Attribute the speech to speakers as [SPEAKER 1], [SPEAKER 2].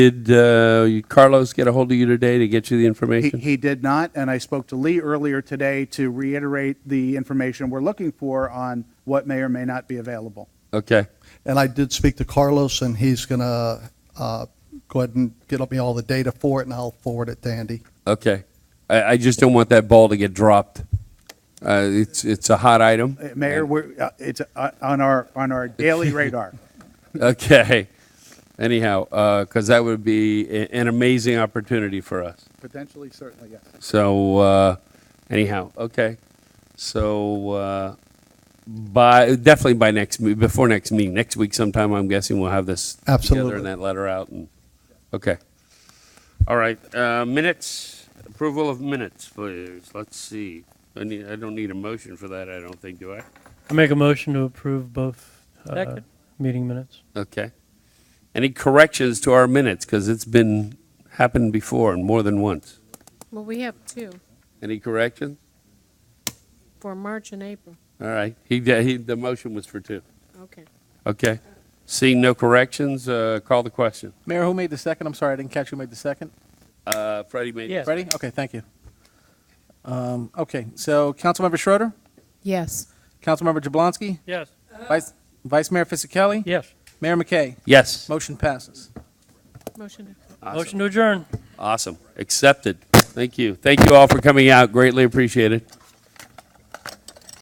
[SPEAKER 1] Did uh, Carlos get a hold of you today to get you the
[SPEAKER 2] He,
[SPEAKER 1] information?
[SPEAKER 2] he did not, and I spoke to Lee earlier today to reiterate the information we're looking for on what may or may not be available.
[SPEAKER 1] Okay,
[SPEAKER 3] And I did speak to Carlos, and he's going to go ahead and get me all the data for it, and I'll forward it to Andy.
[SPEAKER 1] okay. I, I just don't want that ball to get dropped. Uh, it's, it's a hot item.
[SPEAKER 2] Uh, Mayor, we're, uh, it's uh, on our, on our daily radar.
[SPEAKER 1] Okay. Anyhow, because that would be a- an amazing opportunity for us.
[SPEAKER 2] Potentially, certainly, yes.
[SPEAKER 1] So uh, anyhow, okay. So uh, by definitely by next me- before next meeting, next week sometime, I'm guessing we'll have this together
[SPEAKER 3] Absolutely.
[SPEAKER 1] and that letter out. And okay. All right. Uh, minutes approval of minutes, please. Let's see. I need. I don't need a motion for that. I don't think. Do I?
[SPEAKER 4] I make a motion to approve both uh,
[SPEAKER 5] Second.
[SPEAKER 4] meeting minutes.
[SPEAKER 1] Okay. Any corrections to our minutes? Because it's been happened before and more than once.
[SPEAKER 5] Well, we have two,
[SPEAKER 1] Any corrections?
[SPEAKER 5] for March and April.
[SPEAKER 1] All right. He, he the motion was for two.
[SPEAKER 5] Okay.
[SPEAKER 1] Okay. Seeing no corrections, uh, call the question.
[SPEAKER 6] Mayor, who made the second? I'm sorry, I didn't catch who made the second.
[SPEAKER 1] Uh, Freddie made.
[SPEAKER 4] Yes.
[SPEAKER 6] Ready? Okay, thank you. Um, okay, so Councilmember Schroeder,
[SPEAKER 5] Yes.
[SPEAKER 6] Councilmember Jablonski,
[SPEAKER 4] Yes.
[SPEAKER 6] Vice, Vice Mayor Fisickelli,
[SPEAKER 4] Yes.
[SPEAKER 6] Mayor McKay.
[SPEAKER 1] Yes.
[SPEAKER 6] Motion passes.
[SPEAKER 5] Motion.
[SPEAKER 1] Awesome.
[SPEAKER 4] Motion to adjourn.
[SPEAKER 1] Awesome. Accepted. Thank you. Thank you all for coming out. Greatly appreciated.